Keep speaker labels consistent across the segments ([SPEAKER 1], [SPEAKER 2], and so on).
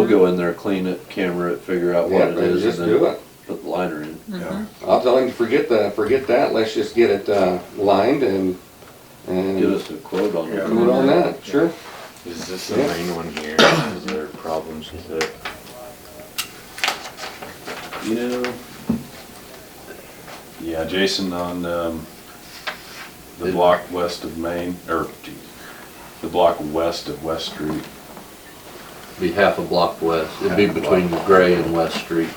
[SPEAKER 1] We'll go in there, clean it, camera it, figure out what
[SPEAKER 2] Yeah,
[SPEAKER 1] it
[SPEAKER 2] then
[SPEAKER 1] is,
[SPEAKER 2] just
[SPEAKER 1] and then
[SPEAKER 2] do it.
[SPEAKER 1] put the liner in.
[SPEAKER 3] Yeah.
[SPEAKER 2] I'll tell him to forget the, forget that, let's just get it, uh, lined and, and.
[SPEAKER 1] Give us a quote on
[SPEAKER 3] Yeah.
[SPEAKER 1] it.
[SPEAKER 2] Do it on that, sure.
[SPEAKER 4] Is this the
[SPEAKER 2] Yeah.
[SPEAKER 4] main one here? Is there problems with it?
[SPEAKER 1] You know,
[SPEAKER 3] Yeah, Jason, on, um, the
[SPEAKER 1] It-
[SPEAKER 3] block west of Main, or, geez, the block west of West Street,
[SPEAKER 1] be half a block west. It'd be
[SPEAKER 3] Half a
[SPEAKER 1] between Gray and West Street.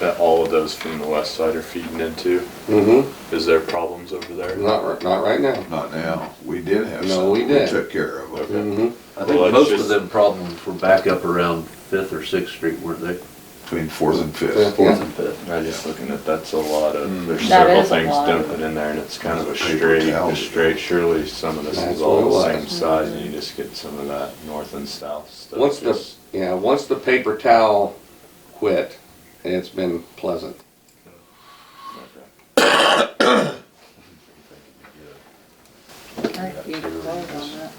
[SPEAKER 4] That all of those from the west side are feeding into?
[SPEAKER 2] Mm-hmm,
[SPEAKER 4] Is there problems over there?
[SPEAKER 2] not, ri- not right now.
[SPEAKER 5] Not now. We did have
[SPEAKER 2] No,
[SPEAKER 5] some.
[SPEAKER 2] we did.
[SPEAKER 5] took care of it.
[SPEAKER 2] Mm-hmm,
[SPEAKER 1] I think
[SPEAKER 4] Well, it's
[SPEAKER 1] most of
[SPEAKER 4] just-
[SPEAKER 1] them problems were back up around Fifth or Sixth Street, weren't they?
[SPEAKER 5] Between fourth and
[SPEAKER 2] Fifth,
[SPEAKER 5] fifth.
[SPEAKER 2] yeah.
[SPEAKER 1] Fourth and Fifth.
[SPEAKER 4] I'm just looking at, that's a lot
[SPEAKER 6] Hmm.
[SPEAKER 4] of, there's
[SPEAKER 7] That
[SPEAKER 4] several
[SPEAKER 7] is a
[SPEAKER 4] things
[SPEAKER 7] lot.
[SPEAKER 4] dumping in there and it's kind of a
[SPEAKER 5] It's a paper
[SPEAKER 4] straight,
[SPEAKER 5] towel.
[SPEAKER 4] a straight, surely some of this
[SPEAKER 2] That's
[SPEAKER 4] is
[SPEAKER 2] what it
[SPEAKER 4] all the
[SPEAKER 2] was.
[SPEAKER 4] same size and you just get some of that north and south stuff.
[SPEAKER 2] Once the,
[SPEAKER 4] just-
[SPEAKER 2] yeah, once the paper towel quit, it's been pleasant.
[SPEAKER 7] I think we can vote on that.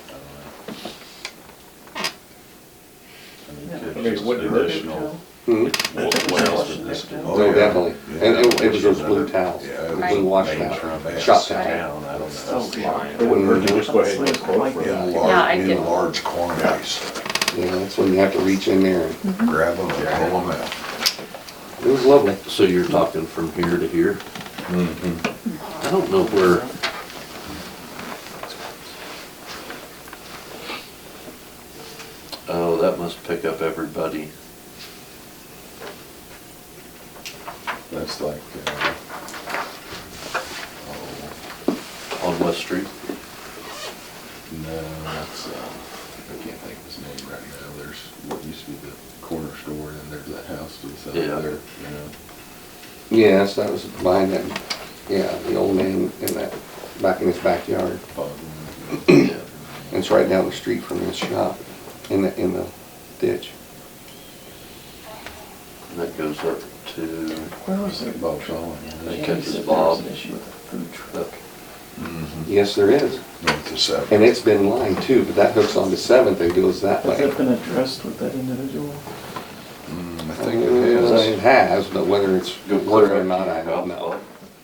[SPEAKER 3] I
[SPEAKER 6] I
[SPEAKER 3] mean,
[SPEAKER 6] mean,
[SPEAKER 3] it's
[SPEAKER 6] it
[SPEAKER 3] just
[SPEAKER 6] wouldn't hurt it,
[SPEAKER 3] additional.
[SPEAKER 2] Mhm.
[SPEAKER 3] wa- wells in this town.
[SPEAKER 5] Oh,
[SPEAKER 2] No,
[SPEAKER 5] yeah.
[SPEAKER 2] definitely.
[SPEAKER 5] Yeah,
[SPEAKER 2] And it,
[SPEAKER 5] that
[SPEAKER 2] it was those
[SPEAKER 5] just
[SPEAKER 2] blue
[SPEAKER 5] another-
[SPEAKER 2] towels,
[SPEAKER 5] Yeah.
[SPEAKER 2] the
[SPEAKER 5] it
[SPEAKER 7] Right.
[SPEAKER 2] blue
[SPEAKER 5] main
[SPEAKER 2] washout,
[SPEAKER 5] trans-
[SPEAKER 2] shop
[SPEAKER 7] Right.
[SPEAKER 2] towel.
[SPEAKER 3] Town, I don't know.
[SPEAKER 6] Oh,
[SPEAKER 4] It's
[SPEAKER 6] yeah.
[SPEAKER 4] fine.
[SPEAKER 6] It wouldn't hurt to just go ahead and quote for
[SPEAKER 5] In
[SPEAKER 6] it.
[SPEAKER 7] Yeah, I
[SPEAKER 5] large,
[SPEAKER 7] did.
[SPEAKER 5] in large quantities.
[SPEAKER 2] You know, that's when you have to reach in there. and-
[SPEAKER 5] Grab them and pull them out.
[SPEAKER 2] It was lovely.
[SPEAKER 1] So you're talking from here to here?
[SPEAKER 4] Hmm.
[SPEAKER 1] I don't know where, oh, that must pick up everybody.
[SPEAKER 3] That's like, uh,
[SPEAKER 5] Oh,
[SPEAKER 1] on West Street.
[SPEAKER 3] no, that's, uh, I can't think of his name right now. There's what used to be the corner store and there's that house to the south
[SPEAKER 1] Yeah.
[SPEAKER 3] there, you know.
[SPEAKER 2] Yes, that was mine and, yeah, the old man in that, back in his backyard.
[SPEAKER 3] Bogman.
[SPEAKER 2] It's right down the street from his shop, in the, in the ditch.
[SPEAKER 1] And that goes up to,
[SPEAKER 6] Where was
[SPEAKER 3] I
[SPEAKER 6] it?
[SPEAKER 3] think Bob Shaw, yeah.
[SPEAKER 1] They
[SPEAKER 6] Yeah,
[SPEAKER 1] catch
[SPEAKER 6] he
[SPEAKER 1] his
[SPEAKER 6] said there was
[SPEAKER 1] bob.
[SPEAKER 6] an issue with the food truck.
[SPEAKER 1] up
[SPEAKER 2] Yes, there is.
[SPEAKER 5] North to south.
[SPEAKER 2] Mm-hmm. And it's been lined too, but that hooks onto Seventh, it goes that
[SPEAKER 6] Has
[SPEAKER 2] way.
[SPEAKER 6] that been addressed with that individual?
[SPEAKER 5] Mm, I
[SPEAKER 2] Uh,
[SPEAKER 5] think it
[SPEAKER 2] It
[SPEAKER 5] has.
[SPEAKER 2] has, but whether it's
[SPEAKER 1] go
[SPEAKER 2] good
[SPEAKER 1] clear
[SPEAKER 2] or
[SPEAKER 1] up.
[SPEAKER 2] not, I don't know.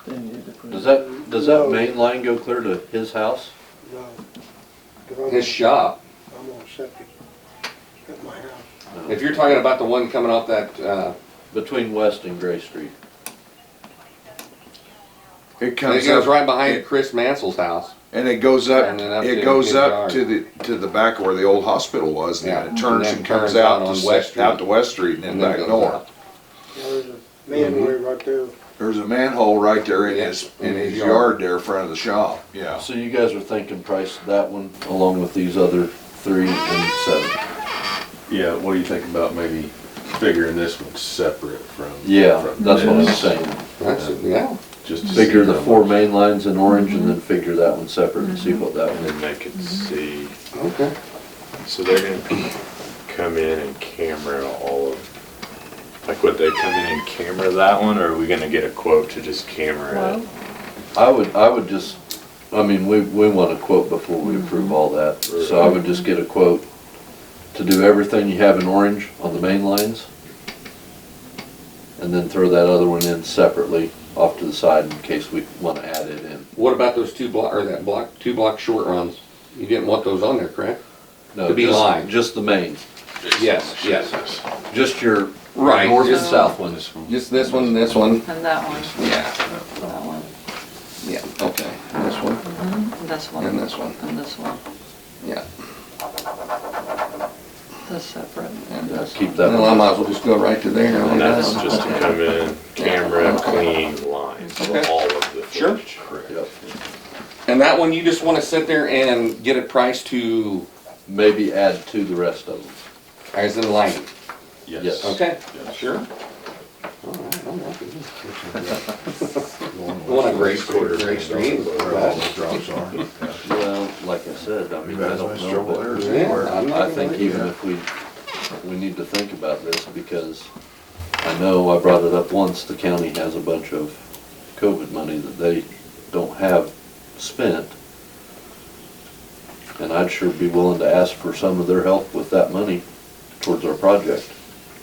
[SPEAKER 6] They needed to put
[SPEAKER 1] Does
[SPEAKER 6] it-
[SPEAKER 1] that, does that main line go clear to his house?
[SPEAKER 8] No. 'Cause I'm-
[SPEAKER 2] His shop,
[SPEAKER 8] I'm on septic at my house.
[SPEAKER 1] No.
[SPEAKER 2] if you're talking about the one coming off that, uh,
[SPEAKER 1] Between West and Gray Street.
[SPEAKER 5] It
[SPEAKER 2] it
[SPEAKER 5] comes
[SPEAKER 2] goes
[SPEAKER 5] up,
[SPEAKER 2] right behind Chris Mansell's house.
[SPEAKER 5] and it goes up,
[SPEAKER 2] And then up to
[SPEAKER 5] it goes
[SPEAKER 2] his
[SPEAKER 5] up
[SPEAKER 2] yard.
[SPEAKER 5] to the, to the back where the old hospital was. And
[SPEAKER 2] Yeah.
[SPEAKER 5] then it
[SPEAKER 2] And
[SPEAKER 5] turns
[SPEAKER 2] then
[SPEAKER 5] and comes
[SPEAKER 2] turns out
[SPEAKER 5] out
[SPEAKER 2] on West
[SPEAKER 5] to, West out
[SPEAKER 2] Street.
[SPEAKER 5] to West Street and then back
[SPEAKER 2] goes
[SPEAKER 5] north.
[SPEAKER 2] out.
[SPEAKER 8] Now, there's a manway right there.
[SPEAKER 5] There's a manhole right there in
[SPEAKER 2] Yeah,
[SPEAKER 5] his, in his yard there in front of the shop, yeah.
[SPEAKER 1] So you guys are thinking price of that one along with these other three and seven?
[SPEAKER 3] Yeah, what do you think about maybe figuring this one separate from?
[SPEAKER 1] Yeah,
[SPEAKER 3] from
[SPEAKER 1] that's what I'm
[SPEAKER 3] this,
[SPEAKER 1] saying.
[SPEAKER 2] That's, yeah,
[SPEAKER 3] Just
[SPEAKER 2] Mm-hmm.
[SPEAKER 3] to see
[SPEAKER 1] Figure the
[SPEAKER 3] how
[SPEAKER 1] four
[SPEAKER 3] much-
[SPEAKER 1] main lines in orange and then figure that one separate and see what that
[SPEAKER 4] And
[SPEAKER 1] one is.
[SPEAKER 2] Mm-hmm.
[SPEAKER 4] then they could see,
[SPEAKER 2] okay.
[SPEAKER 4] so they're gonna come in and camera all of, like would they come in and camera that one or are we gonna get a quote to just camera it?
[SPEAKER 7] Well,
[SPEAKER 1] I would, I would just, I mean, we, we want a quote before we approve all that. So I would just get a quote to do everything you have in orange on the main lines. And then throw that other one in separately off to the side in case we wanna add it in.
[SPEAKER 2] What about those two block, or that block, two block short runs? You didn't want those on there, correct?
[SPEAKER 1] No,
[SPEAKER 2] To be
[SPEAKER 1] just-
[SPEAKER 2] lined.
[SPEAKER 1] Just the main,
[SPEAKER 2] Yes, yes.
[SPEAKER 1] just your
[SPEAKER 2] Right,
[SPEAKER 1] north and
[SPEAKER 2] just-
[SPEAKER 1] south ones.
[SPEAKER 2] Just this one, this one?
[SPEAKER 7] And that one,
[SPEAKER 2] Yeah,
[SPEAKER 7] that one,
[SPEAKER 2] yeah, okay. This one
[SPEAKER 7] and this one.
[SPEAKER 2] and this one,
[SPEAKER 7] And this one,
[SPEAKER 2] yeah.
[SPEAKER 7] this separate, and
[SPEAKER 1] Yeah,
[SPEAKER 7] this
[SPEAKER 1] Keep
[SPEAKER 7] one.
[SPEAKER 1] that
[SPEAKER 2] Well, I
[SPEAKER 1] one.
[SPEAKER 2] might as well just go right to there.
[SPEAKER 4] And that's just to come in, camera, clean lines of
[SPEAKER 2] Okay.
[SPEAKER 4] all of the
[SPEAKER 2] Sure.
[SPEAKER 4] footage.
[SPEAKER 1] Yep.
[SPEAKER 2] And that one, you just wanna sit there and get a price to,
[SPEAKER 1] Maybe add to the rest of them.
[SPEAKER 2] as in lighting,
[SPEAKER 1] Yes.
[SPEAKER 3] Yes.
[SPEAKER 2] okay?
[SPEAKER 3] Yes.
[SPEAKER 2] Sure. All right, I'm happy with
[SPEAKER 5] Going
[SPEAKER 2] that. One
[SPEAKER 5] west.
[SPEAKER 2] of Gray Street, Gray Street.
[SPEAKER 5] Where all the drops are. Yeah.
[SPEAKER 1] Well, like I said, I
[SPEAKER 5] You
[SPEAKER 1] mean, I
[SPEAKER 5] guys
[SPEAKER 1] don't
[SPEAKER 5] might
[SPEAKER 1] know.
[SPEAKER 5] struggle there
[SPEAKER 1] but-
[SPEAKER 5] is
[SPEAKER 2] Yeah,
[SPEAKER 5] anywhere.
[SPEAKER 2] I'm not
[SPEAKER 1] I think
[SPEAKER 2] gonna-
[SPEAKER 1] even if we, we need to think about this because I know I brought it up once, the county has a bunch of COVID money that they don't have spent. And I'd sure be willing to ask for some of their help with that money towards our project.